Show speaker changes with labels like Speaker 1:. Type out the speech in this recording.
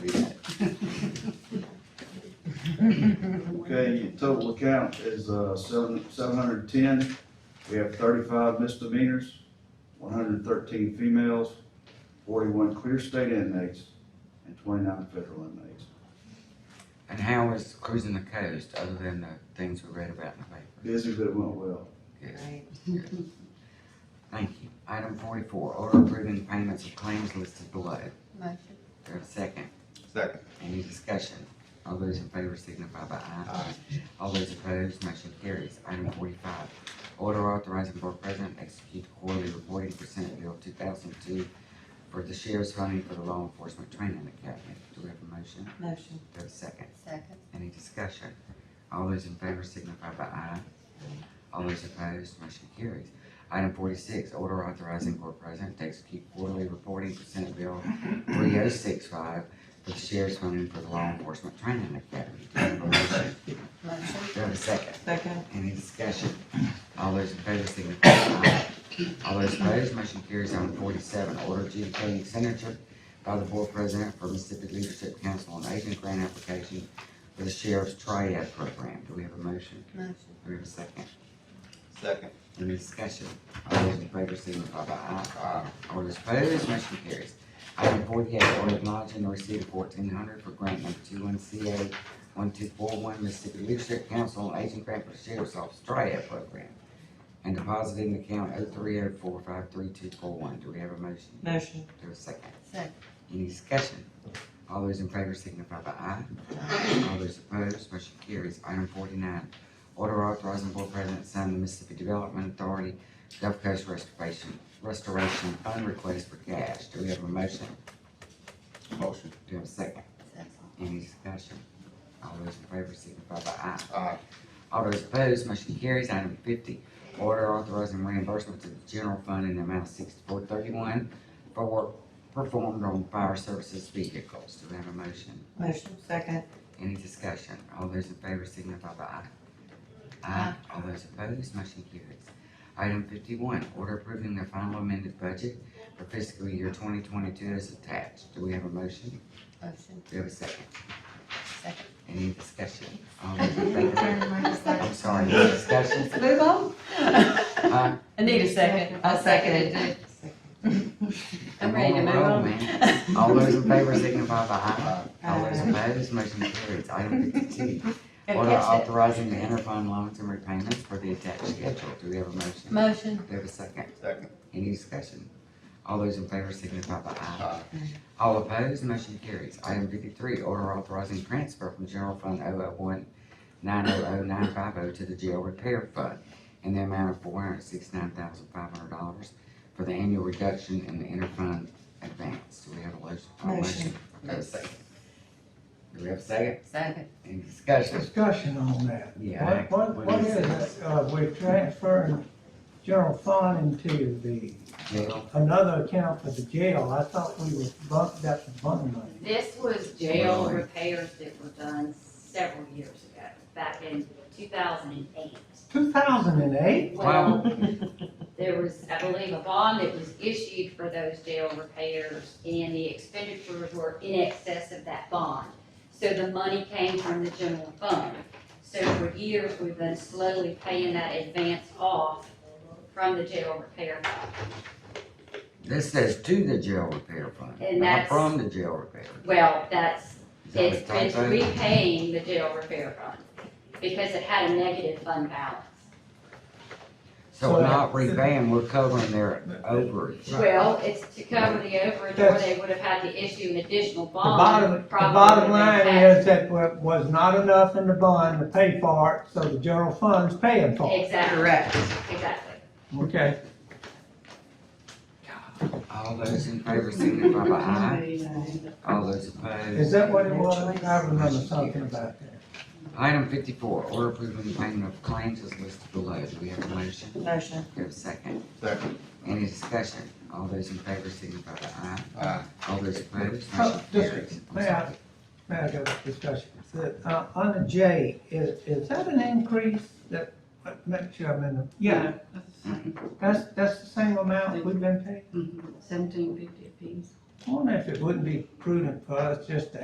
Speaker 1: Okay, your total account is, uh, seven, seven hundred ten. We have thirty-five misdemeanors, one hundred thirteen females, forty-one clear state inmates, and twenty-nine federal inmates.
Speaker 2: And how is cruising the coast, other than the things we read about in the paper?
Speaker 1: Busy, but it went well.
Speaker 2: Yes,
Speaker 3: Right.
Speaker 2: yes. Thank you. Item forty-four, order approving payments of claims listed below.
Speaker 3: Motion.
Speaker 2: Do I have a second?
Speaker 4: Second.
Speaker 2: Any discussion? All those in favor signify by aye. All those opposed, motion carries. Item forty-five, order authorizing board president to execute quarterly reporting percent bill two thousand two for the sheriff's funding for the law enforcement training academy. Do we have a motion? Do
Speaker 3: Motion.
Speaker 2: we have a second?
Speaker 3: Second.
Speaker 2: Any discussion? All those in favor signify by aye. All those opposed, motion carries. Item forty-six, order authorizing court president to execute quarterly reporting for Senate Bill three oh six five for the sheriff's funding for the law enforcement training academy. Do I have a motion?
Speaker 3: Motion.
Speaker 2: Do I have a second?
Speaker 3: Second.
Speaker 2: Any discussion? All those in favor signify by aye. All those opposed, motion carries. Item forty-seven, order adjudicating signature by the board president for Mississippi Leadership Council on Aging Grant Application for the sheriff's triad program. Do we have a motion?
Speaker 3: Motion.
Speaker 2: Do we have a second?
Speaker 4: Second.
Speaker 2: Any discussion? All those in favor signify by aye. All those opposed, motion carries. Item forty-eight, order acknowledging the receipt of fourteen hundred for grant number two one C A one two four one Mississippi Leadership Council on Aging Grant for Sheriff's Office Triad Program and depositing the account oh three oh four five three two four one. Do we have a motion?
Speaker 3: Motion.
Speaker 2: Do we have a second?
Speaker 3: Second.
Speaker 2: Any discussion? All those in favor signify by aye. All those opposed, motion carries. Item forty-nine, order authorizing board president to sign the Mississippi Development Authority Gulf Coast Restoration, Restoration Fund request for cash. Do we have a motion?
Speaker 4: Motion.
Speaker 2: Do we have a second?
Speaker 3: Second.
Speaker 2: Any discussion? All those in favor signify by aye.
Speaker 4: Aye.
Speaker 2: All those opposed, motion carries. Item fifty, order authorizing reimbursement to the general fund in the amount of sixty-four thirty-one for work performed on fire services vehicles. Do we have a motion?
Speaker 3: Motion. Second.
Speaker 2: Any discussion? All those in favor signify by aye. Aye. All those opposed, motion carries. Item fifty-one, order approving the final amended budget for fiscal year twenty twenty-two as attached. Do we have a motion?
Speaker 3: Motion.
Speaker 2: Do we have a second?
Speaker 3: Second.
Speaker 2: Any discussion? All those in favor? I'm sorry, any discussion?
Speaker 3: Move on.
Speaker 2: Aye.
Speaker 3: I need a second. I seconded it. I'm ready to
Speaker 2: Come
Speaker 3: move
Speaker 2: on,
Speaker 3: on.
Speaker 2: roll, man. All those in favor signify by aye. All those
Speaker 3: Aye.
Speaker 2: opposed, motion carries. Item fifty-two,
Speaker 3: Gotta
Speaker 2: order
Speaker 3: catch it.
Speaker 2: authorizing the interfund loans and repayments for the attached schedule. Do we have a motion?
Speaker 3: Motion.
Speaker 2: Do we have a second?
Speaker 4: Second.
Speaker 2: Any discussion? All those in favor signify by aye.
Speaker 4: Aye.
Speaker 2: All opposed, motion carries. Item fifty-three, order authorizing transfer from general fund 001-900-950 to the jail repair fund in the amount of four hundred sixty-nine thousand five hundred dollars for the annual reduction in the interfund advance. Do we have a lo- a motion?
Speaker 3: Motion.
Speaker 2: Do we have a second? Do we have a second?
Speaker 3: Second.
Speaker 2: Any discussion?
Speaker 5: discussion on that.
Speaker 2: Yeah.
Speaker 5: What, what, what is it, uh, we're transferring general fund into the,
Speaker 2: Jail,
Speaker 5: another account for the jail, I thought we was bumped up the fund money.
Speaker 6: This was jail
Speaker 2: Really?
Speaker 6: repairs that were done several years ago, back in two thousand and eight.
Speaker 5: Two thousand and eight?
Speaker 2: Wow.
Speaker 6: Well, there was, I believe, a bond that was issued for those jail repairs, and the expenditures were in excess of that bond. So the money came from the general fund. So for years, we've been slowly paying that advance off from the jail repair fund.
Speaker 2: this says to the jail repair fund,
Speaker 6: And
Speaker 2: not
Speaker 6: that's-
Speaker 2: from the jail repair.
Speaker 6: Well, that's
Speaker 2: Is that
Speaker 6: It's
Speaker 2: a typo?
Speaker 6: it's repaying the jail repair fund, because it had a negative fund balance.
Speaker 2: So we're not repaying, we're covering their overage.
Speaker 6: Well, it's to cover the overage, or they would have had to issue an additional
Speaker 5: The
Speaker 6: bond.
Speaker 5: bottom, the
Speaker 6: probably
Speaker 5: bottom
Speaker 6: would have
Speaker 5: line
Speaker 6: been
Speaker 5: is
Speaker 6: taxed.
Speaker 5: that wa- was not enough in the bond to pay for it, so the general fund's paying for it,
Speaker 6: Exactly,
Speaker 3: Correct.
Speaker 6: exactly.
Speaker 5: okay?
Speaker 2: All those in favor signify by aye. All those
Speaker 5: Is
Speaker 2: opposed.
Speaker 5: that what it was? I remember something about that.
Speaker 2: Item fifty-four, order approving the payment of claims as listed below. Do we have a motion? Do
Speaker 3: Motion.
Speaker 2: we have a second?
Speaker 4: Second.
Speaker 2: Any discussion? All those in favor signify by aye.
Speaker 4: Aye.
Speaker 2: All those opposed,
Speaker 5: Oh,
Speaker 2: motion
Speaker 5: just-
Speaker 2: carries. I'm
Speaker 5: may I-
Speaker 2: sorry.
Speaker 5: May I go to discussion? The, uh, under J, is, is that an increase that, uh, make sure I'm in the, yeah, that's, that's the same amount we've been paying?
Speaker 3: Seventeen fifty apiece.
Speaker 5: I wonder if it wouldn't be prudent for us just to